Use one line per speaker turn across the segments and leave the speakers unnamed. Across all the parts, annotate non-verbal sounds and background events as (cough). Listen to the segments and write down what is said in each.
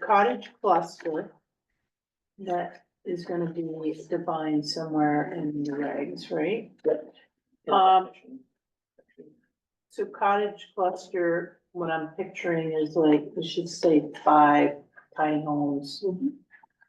cottage cluster. That is gonna be defined somewhere in the regs, right? Um, So cottage cluster, what I'm picturing is like, we should say five tiny homes.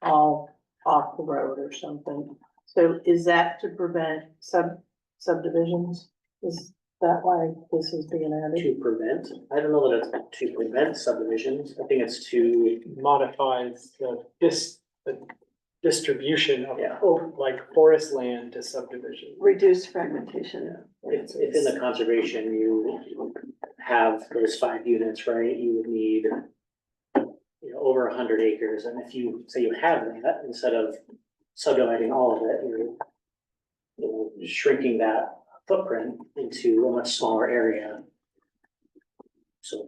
All off the road or something. So is that to prevent sub subdivisions? Is that why this is being added?
To prevent, I don't know that it's to prevent subdivisions, I think it's to,
modifies the dis, the distribution of
Yeah.
Oh,
of, like forest land to subdivision.
Reduce fragmentation.
if, if in the conservation you have those five units, right, you would need. You know, over a hundred acres, and if you, say you have that, instead of subdividing all of it, you're. you know, Shrinking that footprint into a much smaller area. So.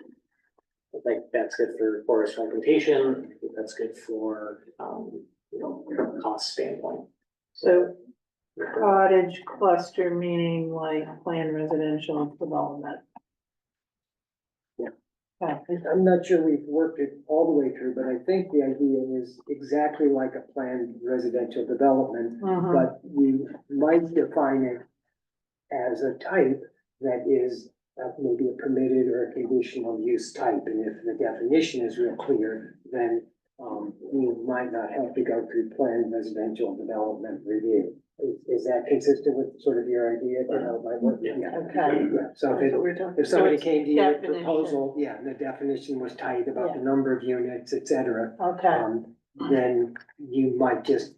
I think that's good for forest fragmentation, I think that's good for, um, you know, from a cost standpoint.
So cottage cluster meaning like planned residential development.
I- I'm not sure we've worked it all the way through, but I think the idea is exactly like a planned residential development,
Mhm.
but you might define it as a type that is uh, maybe a permitted or a conditional use type, and if the definition is real clear, then um, we might not have to go through planned residential development review. Is, is that consistent with sort of your idea, you know, my work?
Yeah.
Okay.
Yeah, so if it
That's what we're talking.
if somebody
it's
came to you with a
definition.
proposal, yeah, and the definition was tight about the number of units, et cetera,
Okay,
um, then you might just.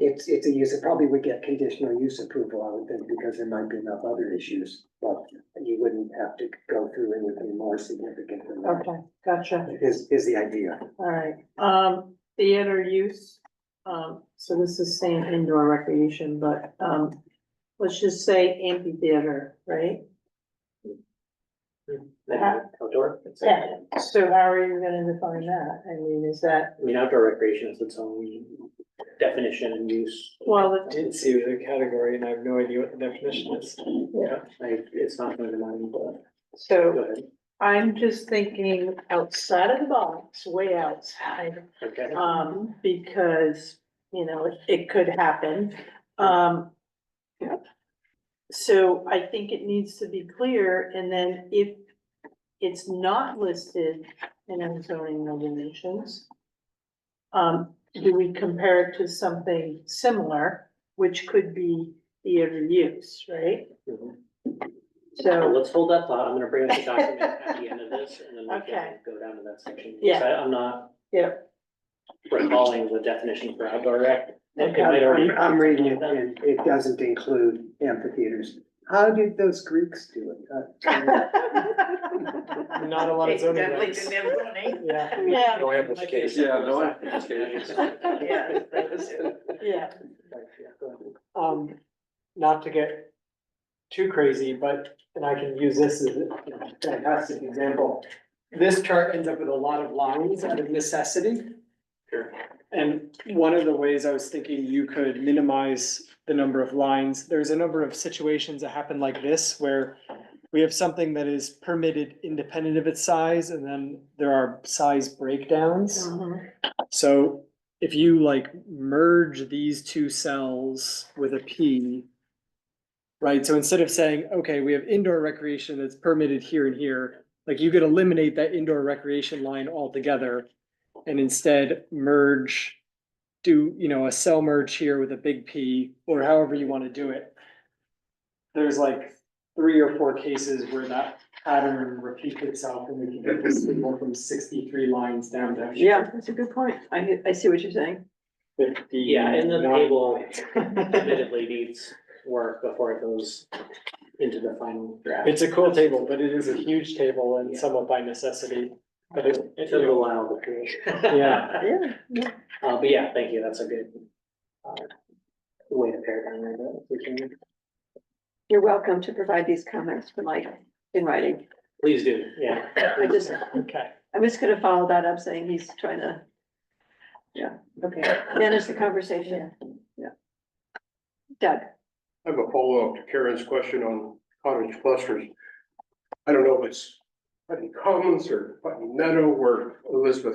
It's, it's a use, it probably would get conditional use approval, I would think, because there might be enough other issues, but you wouldn't have to go through anything more significant than that.
okay, gotcha,
Is, is the idea.
all right. Um, theater use, um, so this is saying indoor recreation, but, um, let's just say amphitheater, right?
Then outdoor. it's like-
Yeah. So how are you gonna define that? I mean, is that,
I mean, outdoor recreation is its own definition and use.
well,
I
it-
Did see the category and I have no idea what the definition is.
Yeah, I, it's not going to mind, but go
so
ahead.
I'm just thinking outside of the box, way outside.
Okay.
Um, because, you know, it- it could happen, um. So I think it needs to be clear, and then if it's not listed in our zoning regulations. Um, do we compare it to something similar, which could be theater use, right?
Mhm. So
So,
let's hold that thought. I'm gonna bring up the document at the end of this and then we
Okay.
can go down to that section.
Yeah.
Because I- I'm not
yeah,
recalling the definition for outdoor rec. It might already-
I'm, I'm reading it, and it doesn't include amphitheaters. How did those Greeks do it? Uh,
Not a lot of zoning regs.
(laughs)
Yeah.
yeah,
No
application.
Yeah, no application.
(laughs)
Yeah.
yeah,
Yeah, go ahead.
Um, not to get too crazy, but, and I can use this as a fantastic example. This chart ends up with a lot of lines out of necessity.
Sure.
And one of the ways I was thinking you could minimize the number of lines, there's a number of situations that happen like this where we have something that is permitted independent of its size, and then there are size breakdowns.
mhm,
So if you like merge these two cells with a P. Right, so instead of saying, okay, we have indoor recreation that's permitted here and here, like you could eliminate that indoor recreation line altogether. And instead merge, do, you know, a cell merge here with a big P or however you wanna do it. There's like three or four cases where that pattern repeats itself and we can get this signal from sixty-three lines down to
Yeah, that's a good point. I, I see what you're saying.
fifty.
Yeah, and the
(laughs)
table
table.
admittedly needs work before it goes into the final draft.
It's a cool table, but it is a huge table and somewhat by necessity, but it,
It took a while to create.
Yeah.
Yeah.
Uh, but yeah, thank you, that's a good, uh, way to pare down there, but we can,
You're welcome to provide these comments, but like, in writing.
please do, yeah.
(coughs) I just,
okay.
I'm just gonna follow that up saying he's trying to
okay.
manage the conversation. Yeah. Doug,
I have a follow-up to Karen's question on cottage clusters. I don't know if it's Putney Commons or Putney Meadow where Elizabeth